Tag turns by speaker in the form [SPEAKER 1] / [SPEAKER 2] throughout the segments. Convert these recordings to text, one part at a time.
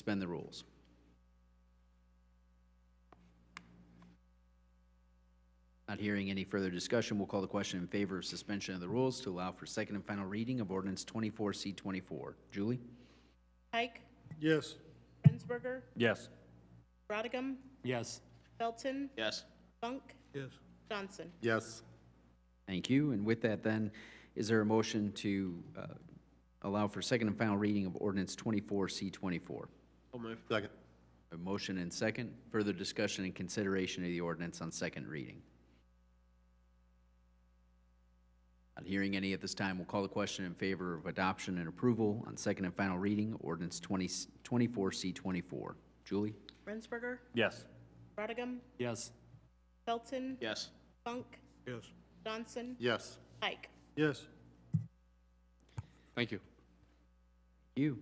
[SPEAKER 1] Suspend the rules. Not hearing any further discussion, we'll call the question in favor of suspension of the rules to allow for second and final reading of ordinance 24C24. Julie?
[SPEAKER 2] Pike,
[SPEAKER 3] Yes.
[SPEAKER 2] Rensberger,
[SPEAKER 4] Yes.
[SPEAKER 2] Rodigam,
[SPEAKER 4] Yes.
[SPEAKER 2] Felton,
[SPEAKER 5] Yes.
[SPEAKER 2] Funk,
[SPEAKER 3] Yes.
[SPEAKER 2] Johnson.
[SPEAKER 3] Yes.
[SPEAKER 1] Thank you. And with that then, is there a motion to uh, allow for second and final reading of ordinance 24C24?
[SPEAKER 5] So move.
[SPEAKER 3] Second.
[SPEAKER 1] A motion and second. Further discussion and consideration of the ordinance on second reading. Not hearing any at this time, we'll call the question in favor of adoption and approval on second and final reading, ordinance 20 24C24. Julie?
[SPEAKER 2] Rensberger,
[SPEAKER 4] Yes.
[SPEAKER 2] Rodigam,
[SPEAKER 4] Yes.
[SPEAKER 2] Felton,
[SPEAKER 5] Yes.
[SPEAKER 2] Funk,
[SPEAKER 3] Yes.
[SPEAKER 2] Johnson,
[SPEAKER 3] Yes.
[SPEAKER 2] Pike.
[SPEAKER 3] Yes.
[SPEAKER 5] Thank you.
[SPEAKER 1] You.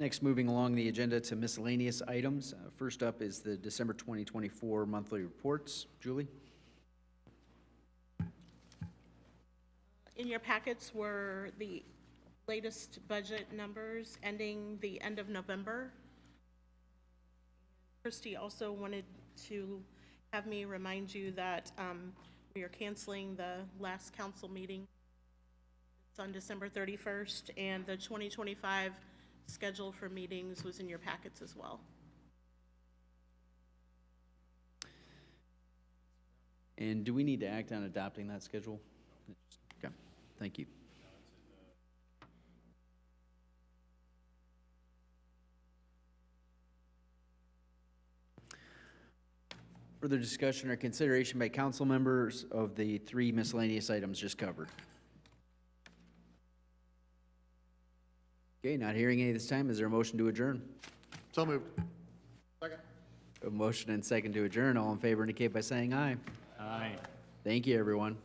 [SPEAKER 1] Next, moving along the agenda to miscellaneous items. Uh, First up is the December 2024 monthly reports. Julie?
[SPEAKER 2] In your packets were the latest budget numbers ending the end of November. Christie also wanted to have me remind you that um, we are canceling the last council meeting. It's on December 31st, and the 2025 schedule for meetings was in your packets as well.
[SPEAKER 1] And do we need to act on adopting that schedule? Okay, thank you. Further discussion or consideration by council members of the three miscellaneous items just covered? Okay, not hearing any this time. Is there a motion to adjourn?
[SPEAKER 3] So moved. Second.
[SPEAKER 1] A motion and second to adjourn. All in favor indicate by saying aye.
[SPEAKER 4] Aye.
[SPEAKER 1] Thank you, everyone.